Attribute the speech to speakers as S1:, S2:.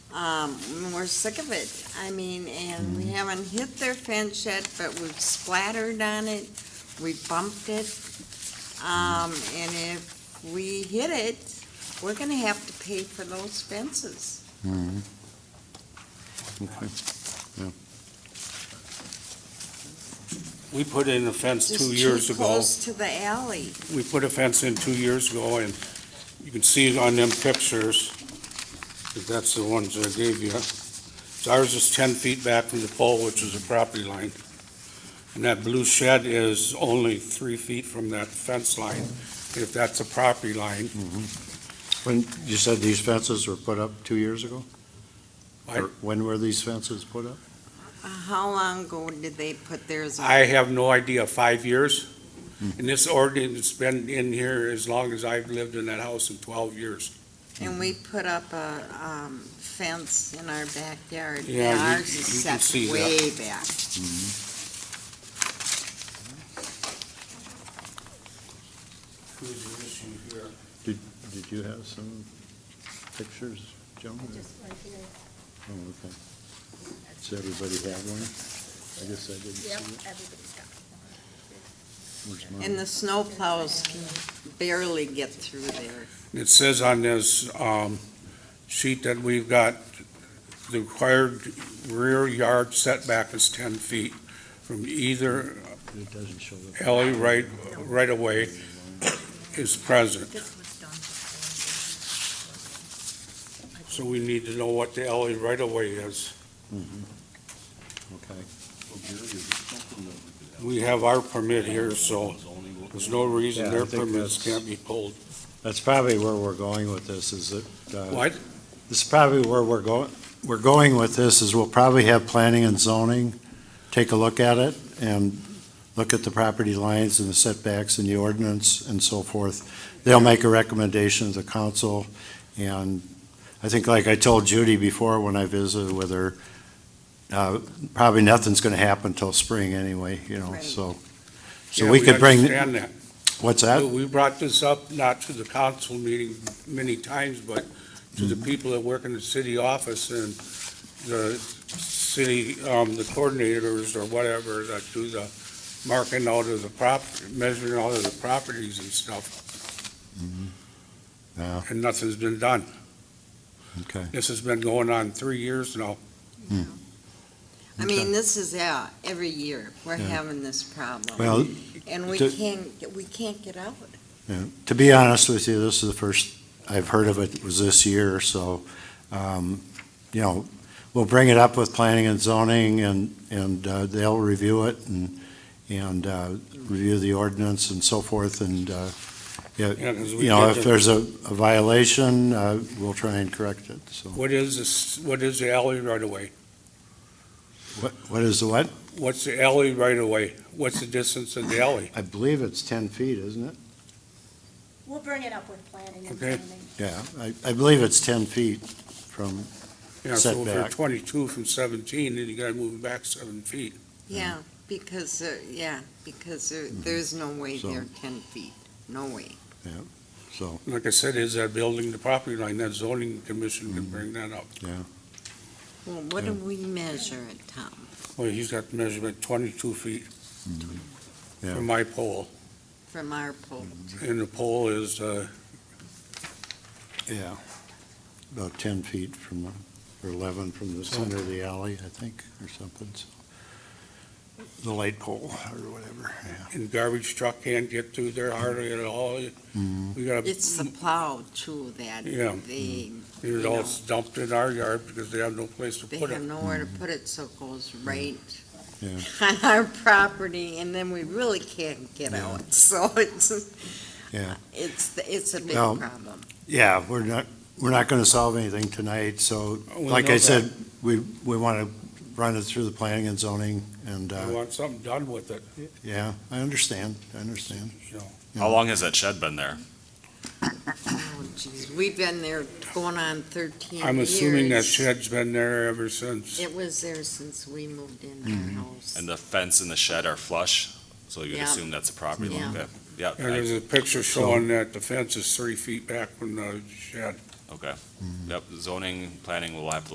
S1: Um, we're sick of it. I mean, and
S2: Mm.
S1: we haven't hit their fence yet, but we've splattered on it, we bumped it. Um,
S2: Mm.
S1: and if we hit it, we're gonna have to pay for those fences.
S3: Mhm. Okay.
S2: We put in a fence
S1: Just
S2: two
S1: too
S2: years ago.
S1: Close to the alley.
S2: We put a fence in two years ago, and you can see it on them pictures, if that's the ones I gave you. So Ours is 10 feet back from the pole, which is the property line. And that blue shed is only three feet from that fence line, if that's a property line.
S3: When, you said these fences were put up two years ago?
S2: I-
S3: Or When were these fences put up?
S1: Uh, How long ago did they put theirs up?
S2: I have no idea, five years? And this ordinance has been in here as long as I've lived in that house in 12 years.
S1: And we put up a, um, fence in our backyard.
S2: Yeah, you-
S1: Ours is
S2: you can
S1: set
S2: see that.
S1: Way back.
S3: Did you have some pictures, Joan?
S4: Just right here.
S3: Oh, okay. Does everybody have one? I guess I didn't
S4: Yep,
S3: see it.
S4: everybody's got one.
S3: Where's
S1: And
S3: mine?
S1: the snowplows can barely get through there.
S2: It says on this um, sheet that we've got, the required rear yard setback is 10 feet from either
S3: It doesn't show the.
S2: alley right, right away is present.
S4: This was done before.
S2: So we need to know what the alley right away is.
S3: Mhm. Mm-hmm. Okay.
S2: We have our permit here, so there's no reason
S3: Yeah, I
S2: their
S3: think
S2: permits
S3: that's-
S2: can't be pulled.
S3: That's probably where we're going with this, is that, uh,
S2: What?
S3: This is probably where we're going, we're going with this, is we'll probably have planning and zoning, take a look at it, and look at the property lines and the setbacks and the ordinance and so forth. They'll make a recommendation to the council, and I think, like I told Judy before when I visited with her, uh, probably nothing's gonna happen till spring anyway, you know,
S1: Right.
S3: so. So
S2: Yeah,
S3: we could bring,
S2: understand that.
S3: what's that?
S2: We brought this up, not to the council meeting many times, but to
S3: Mm-hmm.
S2: the people that work in the city office and the city, um, the coordinators or whatever that do the marking out of the prop, measuring out of the properties and stuff,
S3: Mm-hmm, Yeah,
S2: and nothing's been done.
S3: okay.
S2: This has been going on three years now.
S1: I mean, this is out, every year, we're
S3: Yeah.
S1: having this problem.
S3: Well,
S1: And we
S3: to-
S1: can't, we can't get out.
S3: Yeah, To be honest with you, this is the first I've heard of it, was this year, so, um, you know, we'll bring it up with planning and zoning, and, and uh, they'll review it, and, and uh, review the ordinance and so forth, and, uh, yeah,
S2: Yeah, 'cause we
S3: you know,
S2: did
S3: if
S2: the-
S3: there's a a violation, uh, we'll try and correct it, so.
S2: What is this, what is the alley right away?
S3: What What is the what?
S2: What's the alley right away? What's the distance of the alley?
S3: I believe it's 10 feet, isn't it?
S4: We'll bring it up with planning and
S2: Okay.
S4: zoning.
S3: Yeah, I, I believe it's 10 feet from,
S2: Yeah, so if you're
S3: Setback.
S2: twenty-two from seventeen, then you gotta move it back seven feet.
S1: Yeah, because, uh, yeah, because there, there's no way
S3: Mm-hmm. So-
S1: they're ten feet, no way.
S3: so,
S2: Like I said, is that building the property line, that zoning commission can bring that up.
S1: Well, what do
S3: Yeah.
S1: we measure it, Tom?
S2: Well, he's got the measurement twenty-two feet
S3: Hmm. yeah.
S2: from my pole,
S1: From our poll,
S2: and the pole is, uh,
S3: Yeah, about 10 feet from, the- or 11 from the center of the alley, I think, or something, so. The light pole or whatever, yeah.
S2: and garbage truck can't get through there hardly at all. We got,
S1: it's the
S2: it
S1: plow too that
S2: Yeah.
S1: they,
S2: all dumped in our yard because they have no place to
S3: Mm-hmm.
S1: they
S2: put
S1: have
S2: it.
S1: nowhere to put it, so it goes right
S3: Yeah.
S1: on our property, and then we really can't get
S3: Yeah.
S1: out, so it's,
S3: Yeah.
S1: it's, the- it's a big
S3: Well,
S1: problem.
S3: Yeah, we're not, we're not going to solve anything tonight, so
S2: We
S3: like
S2: know
S3: I
S2: that.
S3: said, we, we want to run it through the planning and zoning and,
S2: I
S3: uh,
S2: want something done with it,
S3: yeah, I understand, I understand.
S2: you know.
S5: How long has that shed been there?
S1: Oh, jeez, we've been there going on thirteen years.
S2: I'm assuming that shed's been there ever since.
S1: It was there since we moved in our house.
S5: And the fence and the shed are flush, so you'd
S1: Yeah.
S5: assume that's a property line?
S1: Yeah.
S5: Yeah.
S2: And there's
S5: Yeah,
S2: a picture showing that the fence is three feet back from the shed.
S5: I- okay. Yep, zoning, planning will have to